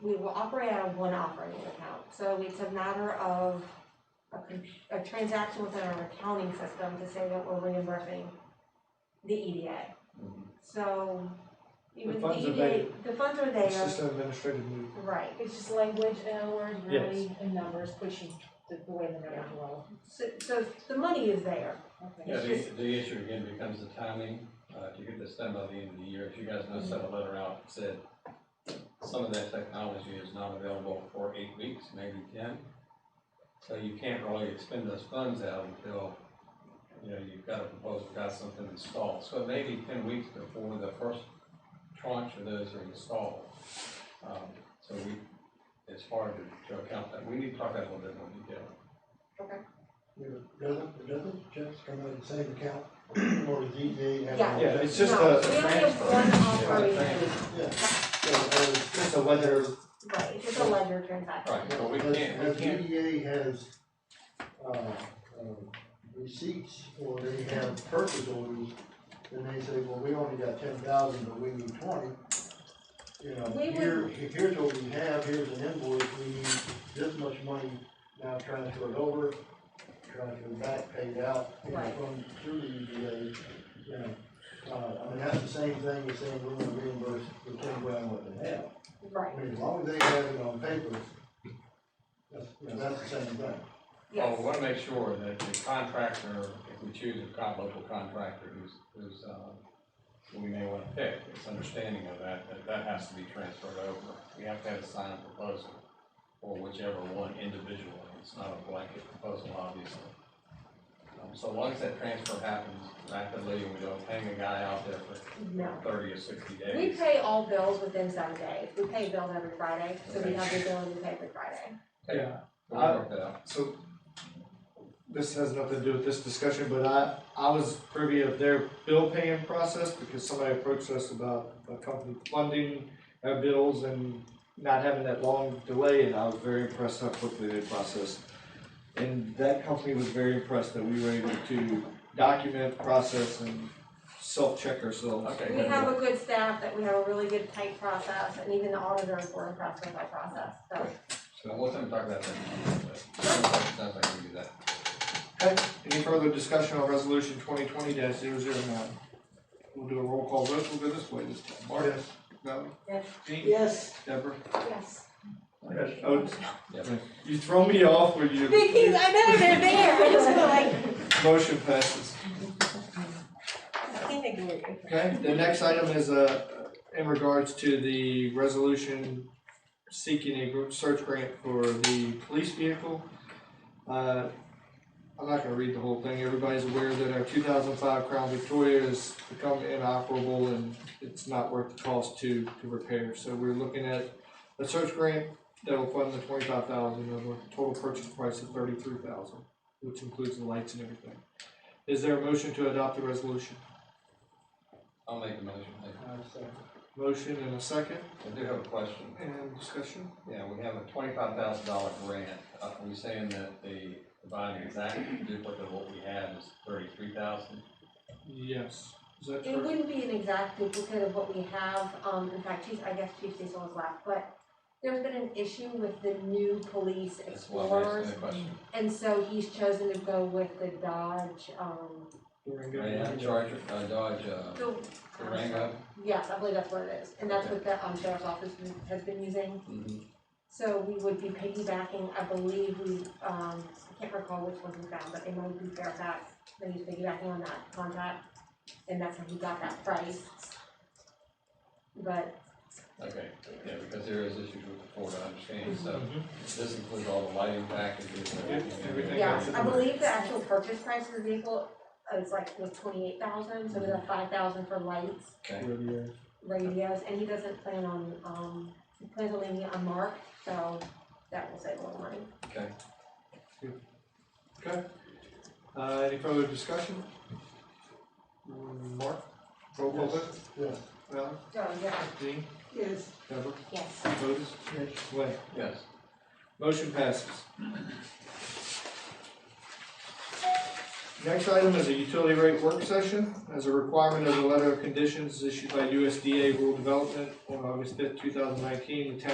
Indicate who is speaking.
Speaker 1: we will operate out of one operating account. So it's a matter of a, con- a transaction within our accounting system to say that we're reimbursing the EDA. So
Speaker 2: The
Speaker 1: even the
Speaker 2: funds are
Speaker 1: EDA, the funds are there,
Speaker 2: It's just an administrative move.
Speaker 1: right.
Speaker 3: It's just language, in other words,
Speaker 2: Yes.
Speaker 3: really, and numbers, pushing the, the way the numbers roll.
Speaker 1: So, so the money is there.
Speaker 3: Okay.
Speaker 4: Yeah,
Speaker 1: It's
Speaker 4: the,
Speaker 1: just-
Speaker 4: the issue again becomes the timing, uh, to get this done by the end of the year, if you guys know, sent a letter out, that said some of that technology is not available for eight weeks, maybe ten. So you can't really expend those funds out until, you know, you've got a proposal, got something installed, so it may be ten weeks before the first tranche of those are installed. Um, so we, it's hard to, to account that, we need to talk that a little bit more detail.
Speaker 5: Yeah, Doesn't, doesn't checks come out of the same account or the DDA? have
Speaker 1: Yeah.
Speaker 5: all
Speaker 2: Yeah,
Speaker 5: that?
Speaker 2: it's just
Speaker 1: No,
Speaker 2: a- a
Speaker 1: We only have
Speaker 2: transfer.
Speaker 1: one
Speaker 2: Yeah.
Speaker 1: operating,
Speaker 5: Yeah,
Speaker 2: So, uh, it's just a ledger,
Speaker 1: right, it's just a ledger transaction.
Speaker 4: Right, but we
Speaker 5: Has-
Speaker 4: can't, we
Speaker 5: has
Speaker 4: can't
Speaker 5: DDA has, uh, uh, receipts or they have purchase orders, and they say, well, we only got ten thousand, but we need twenty. You know,
Speaker 1: We
Speaker 5: here, here's what we have, here's an invoice, we need this much money, now transfer it over, transfer it back, paid out, you know,
Speaker 1: Right.
Speaker 5: from, through the DDA, you know. Uh, I mean, that's the same thing as saying we're gonna reimburse the ten grand what they have.
Speaker 1: Right,
Speaker 5: I mean, as long as they have it on paper, that's, you know, that's the same thing.
Speaker 4: Well, we
Speaker 2: Oh,
Speaker 1: yes,
Speaker 4: want to make sure that the contractor, if we choose a co- local contractor who's, who's, uh, who we may want to pick, it's understanding of that, that that has to be transferred over. We have to have a signed proposal for whichever one individually. It's not a blanket proposal, obviously. Um, So long as that transfer happens rapidly and we don't hang a guy out there for
Speaker 1: no.
Speaker 4: thirty or sixty
Speaker 1: We
Speaker 4: days.
Speaker 1: pay all bills within seven days. We pay bills every Friday, so we have the ability to pay every Friday.
Speaker 2: yeah.
Speaker 4: We'll work that out.
Speaker 2: So this has nothing to do with this discussion, but I, I was privy of their bill paying process because somebody approached us about a company funding our bills and not having that long delay, and I was very impressed how quickly they processed. And that company was very impressed that we were able to document, process, and self-check ourselves.
Speaker 4: Okay.
Speaker 1: We have a good staff, that we have a really good tight process, and even the auditors were impressed with our process, so.
Speaker 4: So we'll talk about that. in a minute, but Sounds like we do that.
Speaker 2: Okay, any further discussion on resolution twenty twenty 9 We'll do a roll call vote, we'll go this way this time. Mark?
Speaker 5: Yes.
Speaker 2: No?
Speaker 1: Yes.
Speaker 2: Dean?
Speaker 5: Yes.
Speaker 2: Deborah?
Speaker 1: Yes.
Speaker 2: Oates?
Speaker 4: Yes.
Speaker 2: You throw me off with you.
Speaker 1: Vicky, I know they're there, I just feel like,
Speaker 2: Motion passes.
Speaker 3: I think they do it.
Speaker 2: Okay, the next item is, uh, in regards to the resolution seeking a gr- search grant for the police vehicle. Uh, I'm not gonna read the whole thing, everybody's aware that our two thousand five Crown Victoria has become inoperable and it's not worth the cost to, to repair. So we're looking at a search grant that will fund the twenty-five thousand over a total purchase price of thirty-three thousand, which includes the lights and everything. Is there a motion to adopt the resolution?
Speaker 4: I'll make the motion. Thank you.
Speaker 2: Motion and a second,
Speaker 4: I do have a question.
Speaker 2: and discussion?
Speaker 4: Yeah, we have a twenty-five thousand dollar grant. Uh, Are we saying that the, the buying exact duplicate of what we have is thirty-three thousand?
Speaker 2: Yes. Is that
Speaker 1: it
Speaker 2: correct?
Speaker 1: wouldn't be an exact duplicate of what we have, um, in fact, Chief, I guess Chief Cecil was left, but there's been an issue with the new police
Speaker 4: That's why I'm
Speaker 1: explorers,
Speaker 4: asking the question.
Speaker 1: and so he's chosen to go with the Dodge, um,
Speaker 2: Durango.
Speaker 4: Yeah, Charger, uh, Dodge, uh,
Speaker 1: the
Speaker 4: Durango.
Speaker 1: Yes, I believe that's what it is, and that's what the um sheriff's office has- has been using.
Speaker 4: Mhm.
Speaker 1: So we would be piggybacking, I believe we, um, I can't recall which one we found, but they might be Fairfax, they was piggybacking on that contract. And that's how he got that price. But,
Speaker 4: Okay, yeah, because there is issues with the Ford, I understand. So
Speaker 2: Mm-hmm.
Speaker 4: this includes all the lighting packages and everything.
Speaker 2: Everything
Speaker 1: yes,
Speaker 2: else.
Speaker 1: I believe the actual purchase price of the vehicle is like, was twenty-eight thousand, so we got five thousand for lights,
Speaker 4: Okay,
Speaker 2: Radio.
Speaker 1: radios, and he doesn't plan on, um, he plans on leaving it unmarked, so that will save a lot of money.
Speaker 4: okay.
Speaker 2: Uh, any further discussion? Mm, Mark? Roll call vote?
Speaker 5: Yes.
Speaker 2: Val?
Speaker 1: Oh, yeah.
Speaker 2: Dean?
Speaker 5: Yes.
Speaker 2: Deborah?
Speaker 1: Yes.
Speaker 2: Otis?
Speaker 5: Yes.
Speaker 2: Wait.
Speaker 4: Yes.
Speaker 2: Motion passes. Next item is a utility rate work session as a requirement of the letter of conditions issued by USDA Rural Development on August fifth, two thousand nineteen. The town